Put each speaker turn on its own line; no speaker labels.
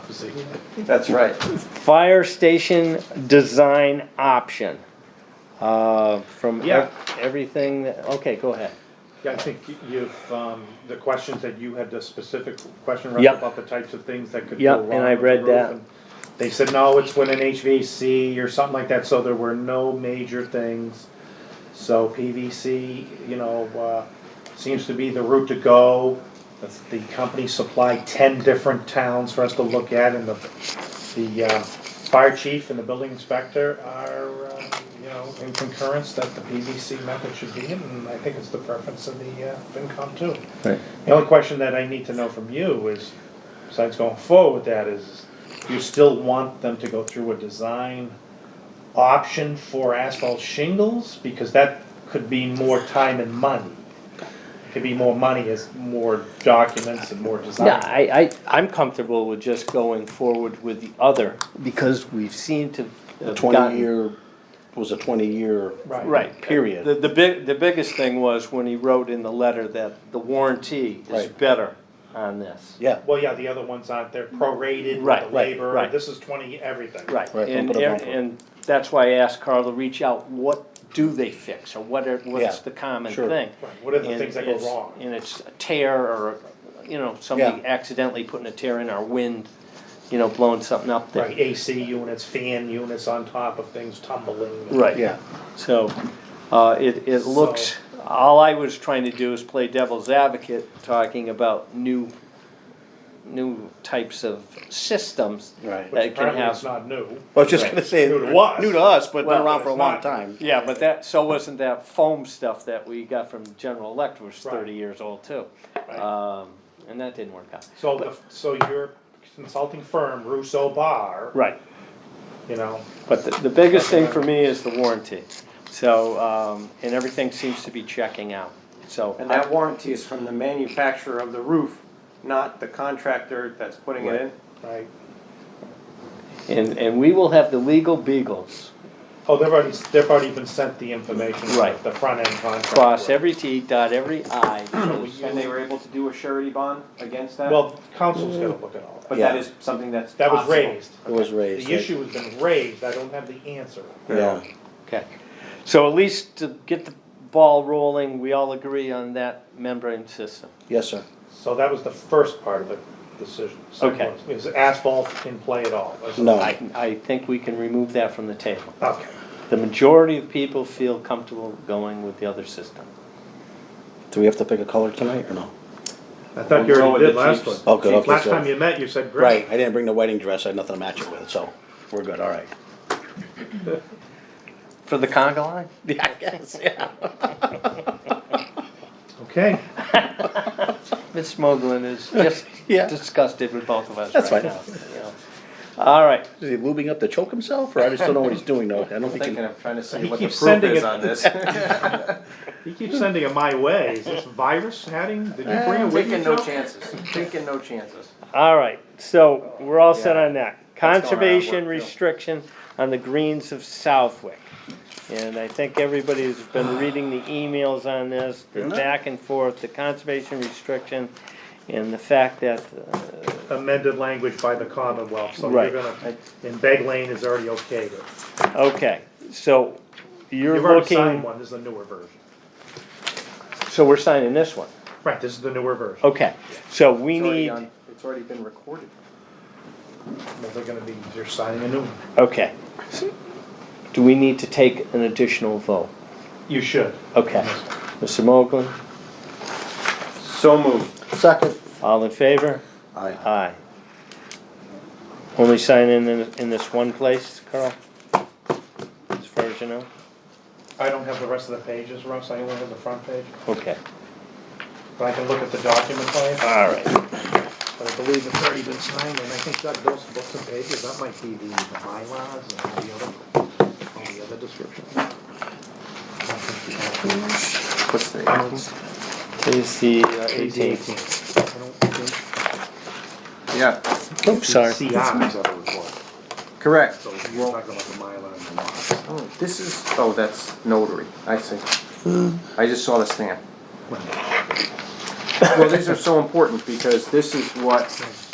position.
That's right.
Fire station design option. Uh, from ev-
Yeah.
everything, that- okay, go ahead.
Yeah, I think you've, um, the questions that you had, the specific question
Yep.
Russ, about the types of things that could
Yep,
go wrong.
and I
with the
read
roof,
that.
and They said, no, it's when an HVAC or something like that, so there were no major things. So PVC, you know, uh, seems to be the route to go. That's- The company supplied ten different towns for us to look at and the, the, uh, fire chief and the building inspector are, uh, you know, in concurrence that the PVC method should be in, and I think it's the preference of the, uh, FinCom too.
Right.
The only question that I need to know from you is, besides going forward with that, is you still want them to go through a design option for asphalt shingles? Because that could be more time and money. Could be more money as more documents and more design.
Yeah, I, I, I'm comfortable with just going forward with the other, because we've seen to.
The
have
twenty
gotten-
year, was a twenty year.
Right.
Right.
Period.
The, the big, the biggest thing was when he wrote in the letter that the warranty is
Right.
better on this.
Yeah,
Well, yeah, the other ones aren't, they're prorated with
Right,
the
right,
labor,
right.
this is twenty everything.
Right,
Right,
and,
bumper to bumper.
and that's why I asked Carl to reach out, what do they fix, or what are, what's
Yeah,
the common
sure.
thing?
Right, what are the
And
things that go
it's-
wrong?
And it's a tear, or, you know, somebody
Yeah.
accidentally putting a tear in our wind, you know, blowing something up there.
Right, AC units, fan units on top of things tumbling.
Right.
yeah,
So, uh, it, it looks, all I was trying to do is play devil's advocate, talking about new, new types of systems.
Right.
Which
That can
apparently it's
have,
not new.
I was just gonna say.
New to us.
New to us, but been
Well,
around
but
for a
it's
long
not-
time.
yeah, but that, so wasn't that foam stuff that we got from General Electric was
Right.
thirty years old too.
Right.
Um, and that didn't work out.
So, the, so your consulting firm, Russo Bar,
Right.
you know,
But the, the biggest thing for me is the warranty. So, um, and everything seems to be checking out, so.
And that warranty is from the manufacturer of the roof, not the contractor that's putting it in.
right?
And, and we will have the legal beagles
Oh, they've already, they've already been sent the information,
Right.
the front end contract.
cross every T, dot every I. so it's-
And they were able to do a surety bond against that?
Well, council's gonna look at all that.
But that
Yeah.
is something that's
That was
possible.
raised.
It was raised.
The
right?
issue has been raised, I don't have the answer.
Yeah,
Okay, so at least to get the ball rolling, we all agree on that membrane system.
yes, sir.
So that was the first part of the decision. Second
Okay.
was- Is asphalt in play at all? Was it-
No.
I, I think we can remove that from the table.
Okay,
The majority of people feel comfortable going with the other system.
Do we have to pick a color tonight or no?
I thought you
We'll go
already
with
did
the
last one.
Chiefs.
Oh, good, okay,
Last
so-
time you met, you said
Right,
great.
I didn't bring the wedding dress, I had nothing to match it with, so we're good, all right.
For the conga line?
Yeah, I guess, yeah.
Okay,
Miss Smogglin is just
Yeah.
disgusted with both of us
That's
right
fine.
now. you know. All right,
Is he lubing up to choke himself, or I just don't know what he's doing, no, I don't
I'm
think he
thinking
can.
of trying to see
He
what the
keeps
proof
sending
is
it.
on this.
you keep sending it my way. Is this virus hatting? Did you bring it with you?
Taking no
Joe?
chances, taking no chances.
all right, so we're all set
Yeah.
on that.
going around
Conservation
work, too.
restriction on the greens of Southwick. And I think everybody's been reading the emails on this, the back and forth, the conservation restriction and the fact that, uh,
amended language by the Commonwealth, so you're
Right.
gonna, and Beg Lane is already okay with.
okay, so you're
You've already signed
looking,
one, this is the newer version.
so we're signing this one.
Right, this is the newer version.
Okay, so we
It's already
need,
on- It's already been recorded.
Well, They're gonna be, you're signing a new one.
okay. Do we need to take an additional vote?
You should.
Okay. Mr. Mogul,
So moved.
Second.
all in favor?
Aye.
Aye. Only sign in, in in this one place, Carl? As far as you know?
I don't have the rest of the pages, Russ, I only have the front page,
Okay,
but I can look at the document plan,
all right.
but I believe it's already been signed, and I think that those books and pages, that might be the, the bylaws and all the other, all the other descriptions.
What's the?
I don't think
Today's the uh,
it's
18th.
18. I don't think-
Yeah,
Oops, sorry.
CIs are the report,
correct.
so you're talking about the Mylar and the lots.
Oh, This is, oh, that's notary, I see.
Hmm.
I just saw the stamp. Well, these are so important because this is what